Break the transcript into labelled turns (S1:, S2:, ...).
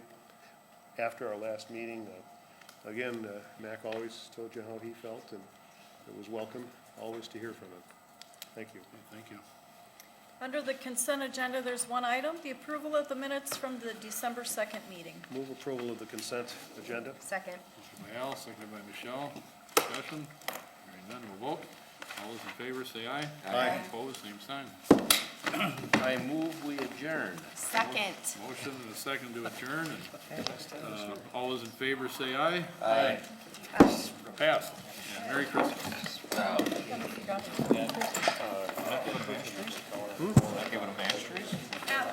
S1: after our last meeting. Uh, Again, uh, Mac always told you how he felt, and it was welcome, always to hear from him. Thank you.
S2: Thank you.
S3: Under the consent agenda, there's one item, the approval of the minutes from the December 2nd meeting.
S1: Move approval of the consent agenda.
S4: Second.
S2: Motion by Al, seconded by Michelle. Discussion? Hearing none, we'll vote. All those in favor say aye.
S1: Aye.
S2: Opposed, same sign.
S5: I move we adjourn.
S4: Second.
S2: Motion and a second to adjourn, and, uh, all those in favor say aye.
S5: Aye.
S2: Passed. And Merry Christmas.
S5: Give it a Bastrop?